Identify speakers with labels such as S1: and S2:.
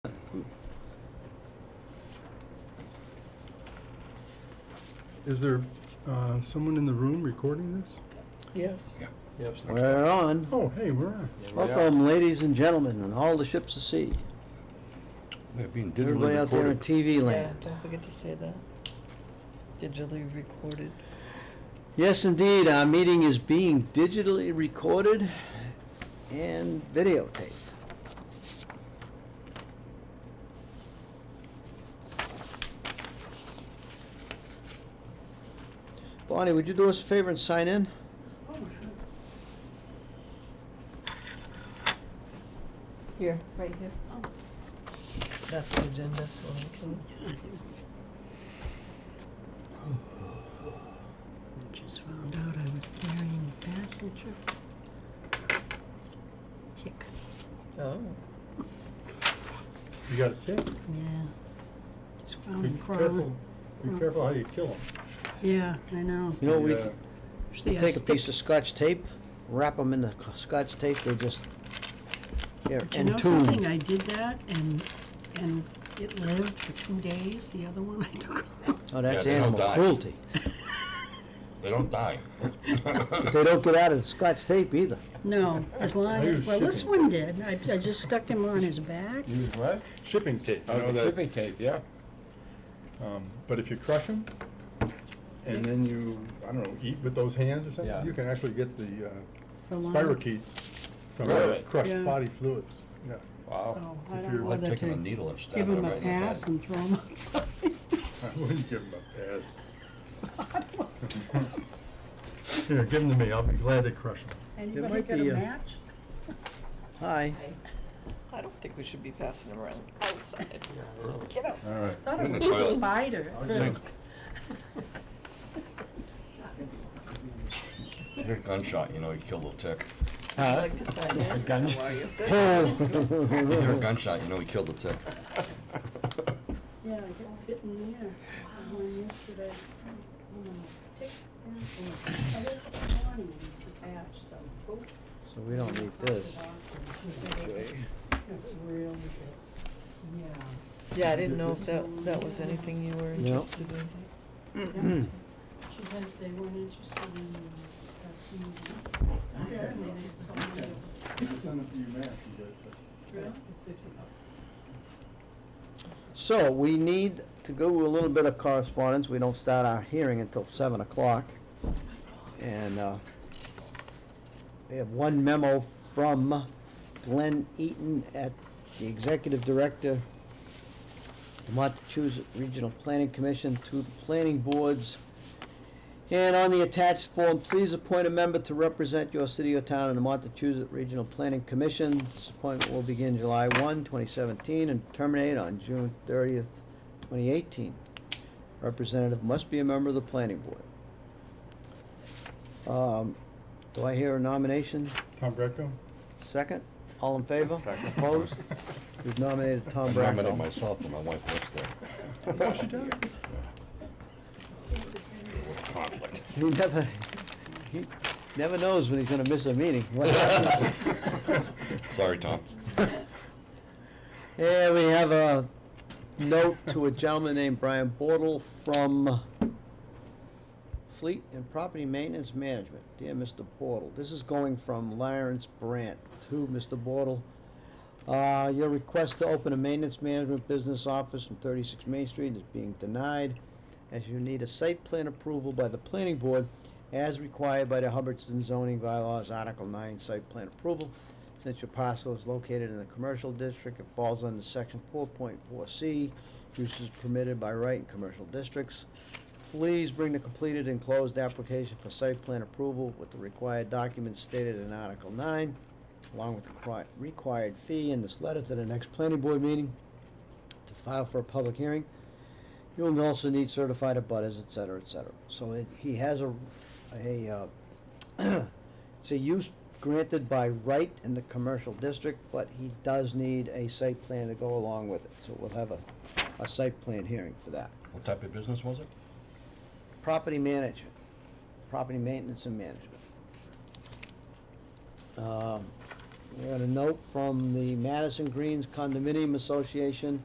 S1: Is there uh, someone in the room recording this?
S2: Yes.
S3: We're on.
S1: Oh, hey, we're on.
S3: Welcome, ladies and gentlemen, and all the ships of sea.
S4: They're being digitally
S3: Everybody out there in
S4: recorded.
S3: TV
S2: Yeah,
S3: land.
S2: don't forget to say that. Digitally recorded.
S3: Yes, indeed, our meeting is being digitally recorded and videotaped. Bonnie, would you do us a favor and sign in?
S2: Here, right here. Oh. That's the agenda.
S5: Just found out I was carrying passenger. Tick,
S2: Oh,
S1: You got a tick.
S5: yeah. Just found
S1: Be
S5: a
S1: careful,
S5: crime.
S1: be
S5: Mm.
S1: careful how you kill uh, them.
S5: Yeah, I know.
S3: You know, we,
S1: Yeah.
S5: Usually I
S3: Take a
S5: stick-
S3: piece of scotch tape, wrap them in the c- scotch tape, they just, they're
S5: But you know something,
S3: entombed.
S5: I did that and, and it lived for two days, the other one I took off.
S3: Oh, that's
S4: they don't
S3: animal
S4: die.
S3: cruelty.
S4: They don't die.
S3: But They don't get out of the scotch tape either.
S5: No, as long,
S1: Are you
S5: as well, this
S1: shipping?
S5: one did, I, I just stuck him on his back.
S4: Use what?
S1: Shipping tape, you
S4: Oh,
S1: know
S4: the
S1: that?
S4: shipping tape, yeah.
S1: Um, but if you crush them, and then you, I don't know, eat with those hands or something,
S4: Yeah.
S1: you can actually get the uh,
S5: the line.
S1: spirochetes from
S4: Really?
S1: the crushed
S5: Yeah.
S1: body fluids. Yeah.
S4: Wow.
S5: So Oh, I
S1: If
S5: don't
S1: you're
S5: know
S4: Like
S5: that
S4: taking a
S5: to
S4: needle and stabbing
S5: give him
S4: it
S5: a
S4: right in the back.
S5: pass and throw him outside.
S1: I wouldn't give them a pass. Here, give them to me. I'll be glad they crush them.
S5: Anybody
S3: might
S5: got
S3: be
S5: a
S3: a-
S5: match?
S3: Hi.
S2: I don't think we should be passing them around outside.
S4: Yeah, really.
S2: Get outside.
S1: All right.
S5: Thought
S4: In the
S5: it was a
S4: toilet.
S5: spider.
S4: Same. You hear a gunshot, you know, you killed a tick.
S2: I'd like to sign in. How are you? Good.
S4: You hear a gunshot, you know, he killed a tick.
S5: Yeah, I got bit in there. The one yesterday. Um, tick, yeah, and I looked this morning and it's attached, so, boop,
S3: So we don't need
S5: popped
S3: this.
S5: it off and it was real good. Yeah.
S2: Yeah, I didn't know if that, that was anything you were
S3: No.
S2: interested in.
S5: Yeah. She had, they weren't interested in uh, testing. Apparently they had so many of them.
S3: So we need to go with a little bit of correspondence. We don't start our hearing until seven o'clock. And uh, we have one memo from Glenn Eaton at the Executive Director, Montechusett Regional Planning Commission to the planning boards. And on the attached form, please appoint a member to represent your city or town in the Montechusett Regional Planning Commission. This appointment will begin July 1, 2017, and terminate on June thirtieth, twenty eighteen. Representative must be a member of the planning board. Um, Do I hear a nomination?
S1: Tom Greco?
S3: Second? All in favor? Opposed? We've nominated Tom
S4: I nominated
S3: Bracco.
S4: myself when my wife works there.
S1: Oh, she does?
S4: Conflict.
S3: He never, he never knows when he's gonna miss a meeting. What happens?
S4: Sorry, Tom.
S3: Yeah, we have a note to a gentleman named Brian Bortle from Fleet and Property Maintenance Management. Dear Mr. Bortle, this is going from Lawrence Brandt to Mr. Bortle. Uh, your request to open a maintenance management business office on thirty-six Main Street is being denied as you need a site plan approval by the planning board as required by the Hubbardston zoning bylaws, Article nine, site plan approval. Since your parcel is located in a commercial district, it falls under section four point four C, uses permitted by right in commercial districts. Please bring the completed and closed application for site plan approval with the required documents stated in Article nine, along with the requi- required fee in this letter to the next planning board meeting to file for a public hearing. You'll also need certified abutters, et cetera, et cetera. So it, he has a, a, uh, it's a use granted by right in the commercial district, but he does need a site plan to go along with it. So we'll have a, a site plan hearing for that.
S4: What type of business was it?
S3: Property management, property maintenance and management. Um, We got a note from the Madison Greens Condominium Association